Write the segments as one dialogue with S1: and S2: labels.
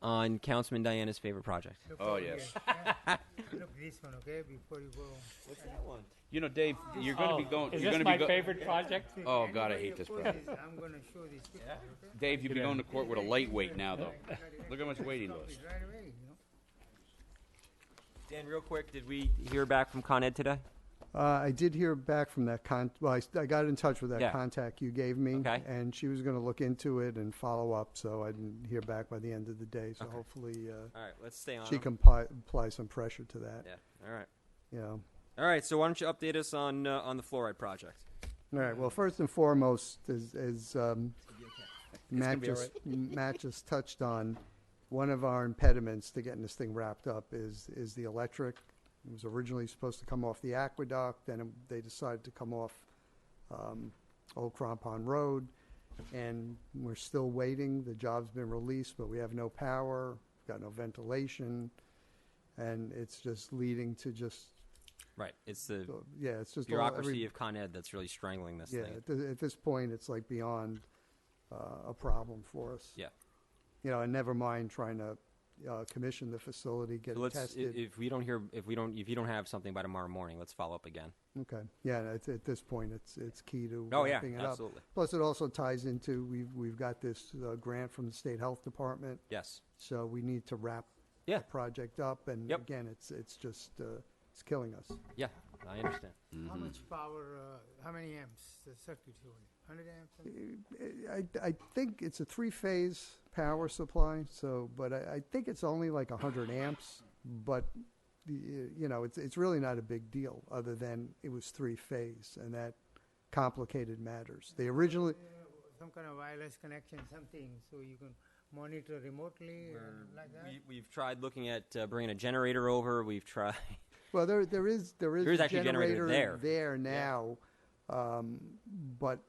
S1: on Councilman Diana's favorite project.
S2: Look
S3: Oh,
S2: over
S3: yes.
S2: here. Look this one, okay, before you go.
S1: What's that one?
S3: You know, Dave, you're going to
S4: Oh,
S3: be going.
S4: Is
S3: you're
S4: this
S3: gonna
S4: my
S3: be go-
S4: favorite project?
S3: Oh, God, I
S2: Anybody
S3: hate this
S2: opposes,
S3: project.
S2: I'm gonna show this picture, okay?
S3: Dave, you'll be
S4: Yeah.
S3: going to court with a lightweight now, though.
S2: Got it right-
S3: Look how much weight he
S2: stop
S3: lost.
S2: it Right away, you know?
S1: Dan, real quick, did we hear back from Con Ed today?
S5: Uh, I did hear back from that con, well, I, s- I got in touch with that
S1: Yeah.
S5: contact you gave me.
S1: Okay.
S5: And she was going to look into it and follow up, so I didn't hear back by the end of the day. So hopefully uh,
S1: All right, let's stay on.
S5: she
S1: him.
S5: can pi- apply some pressure to that.
S1: yeah. All right.
S5: You know.
S1: All right. So why don't you update us on uh, on the fluoride project?
S5: All right. Well, first and foremost, as, as um, Matt,
S1: be all
S5: just, Matt just touched on, one of our impediments to getting this thing wrapped up is is the electric. It was originally supposed to come off the aqueduct, then it- they decided to come off um, Old Crampon Road, and we're still waiting. The job's been released, but we have no power, got no ventilation, and it's just leading to just uh,
S1: Right. It's the
S5: yeah, it's just all- every-
S1: bureaucracy of Con Ed that's really strangling this
S5: yeah,
S1: thing.
S5: at, th- at this point, it's like beyond uh, a problem for us.
S1: Yeah.
S5: You know, and never mind trying to uh, commission the facility, get
S1: So
S5: it
S1: let's i-
S5: tested.
S1: if we don't hear if we don't if you don't have something by tomorrow morning, let's follow up again.
S5: okay. Yeah, and it's, at this point, it's it's key to
S1: Oh, yeah,
S5: wrapping it
S1: absolutely.
S5: up. Plus, it also ties into we've we've got this uh, grant from the state health department,
S1: Yes.
S5: so we need to wrap
S1: Yeah.
S5: the project up. And
S1: Yep.
S5: again, it's it's just uh, it's killing us.
S1: Yeah. I understand.
S2: How
S3: Mm-hmm.
S2: much power, uh, how many amps the circuit hold? Hundred amps? something?
S5: I, I think it's a three-phase power supply, so, but I, I think it's only like 100 amps, but, the- you know, it's, it's really not a big deal, other than it was three-phase, and that complicated matters. They originally,
S2: Some kind of wireless connection, something, so you can monitor remotely or like that?
S1: We, we've tried looking at uh, bringing a generator over. We've tried.
S5: well, there, there is, there is
S1: There is
S5: a
S1: actually a generator
S5: generator
S1: there.
S5: there now, um, but,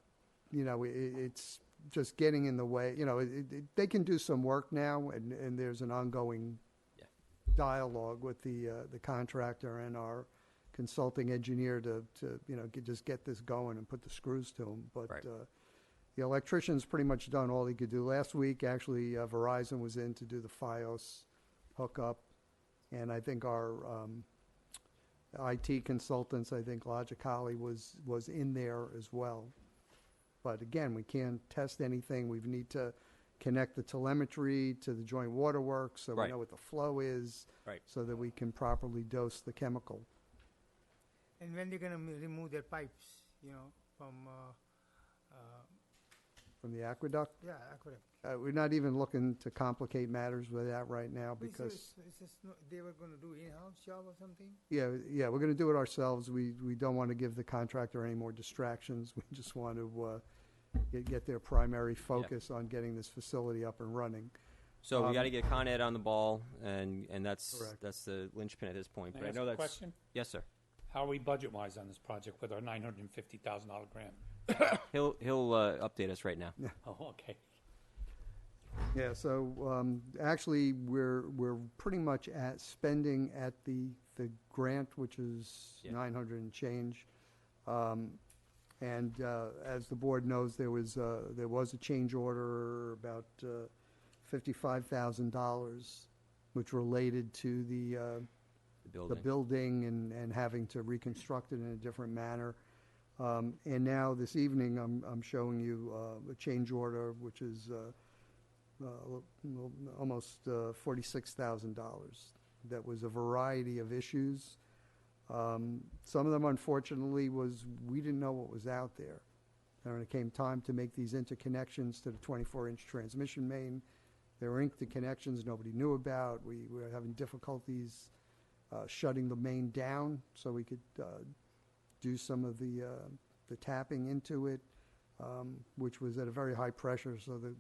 S5: you know, it, it's just getting in the way, you know, it, it, they can do some work now, and, and there's an ongoing
S1: Yeah.
S5: dialogue with the, uh, the contractor and our consulting engineer to, to, you know, get, just get this going and put the screws to them. But,
S1: Right.
S5: uh, the electrician's pretty much done all he could do. Last week, actually, uh, Verizon was in to do the FiOS hookup. And I think our, um, IT consultants, I think Logicali was, was in there as well. But again, we can't test anything. We need to connect the telemetry to the joint waterworks so we
S1: Right.
S5: know what the flow is.
S1: Right.
S5: So that we can properly dose the chemical.
S2: And when they're gonna m- remove their pipes, you know, from, uh, uh,
S5: From the aqueduct,
S2: yeah, aqueduct?
S5: uh, we're not even looking to complicate matters with that right now
S2: It's a-
S5: because,
S2: it's a sno- They were gonna do in-house job or something?
S5: yeah, yeah, we're gonna do it ourselves. We, we don't want to give the contractor any more distractions. We just want to, uh, get, get their primary focus on getting this facility up and running.
S1: So we
S5: Um,
S1: got to get Con Ed on the ball, and and that's
S5: Correct.
S1: that's the linchpin at this point.
S4: Can
S1: But
S4: I
S1: I
S4: ask
S1: know
S4: a
S1: that's
S4: question?
S1: yes, sir.
S4: How are we budget-wise on this project with our nine hundred and fifty thousand dollar grant?
S1: He'll he'll uh, update us right now.
S4: Oh, okay.
S5: Yeah, so um, actually, we're we're pretty much at spending at the the grant, which is
S1: Yeah.
S5: nine hundred and change. Um, and uh, as the board knows, there was uh, there was a change order about uh, fifty five thousand dollars, which related to the uh,
S1: The building.
S5: the building and, and having to reconstruct it in a different manner. Um, and now this evening, I'm, I'm showing you uh, a change order, which is uh, uh, l- l- almost uh, $46,000. That was a variety of issues. Um, some of them, unfortunately, was we didn't know what was out there. And when it came time to make these interconnections to the 24 inch transmission main, there were interconnections nobody knew about. We, we were having difficulties uh, shutting the main down so we could uh, do some of the, uh, the tapping into it, um, which was at a very high pressure, so that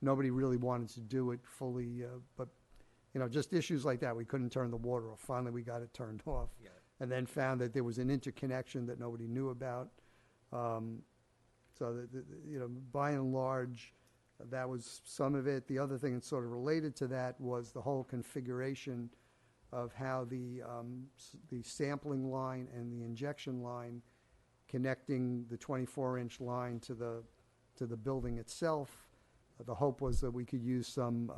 S5: nobody really wanted to do it fully. Uh, but, you know, just issues like that. We couldn't turn the water off. Finally, we got it turned off. And then found that there was an interconnection that nobody knew about. Um, so, that, that- that, you know, by and large, that was some of it. The other thing that's sort of related to that was the whole configuration of how the, um, s- the sampling line and the injection line connecting the 24-inch line to the, to the building itself The hope was that we could use some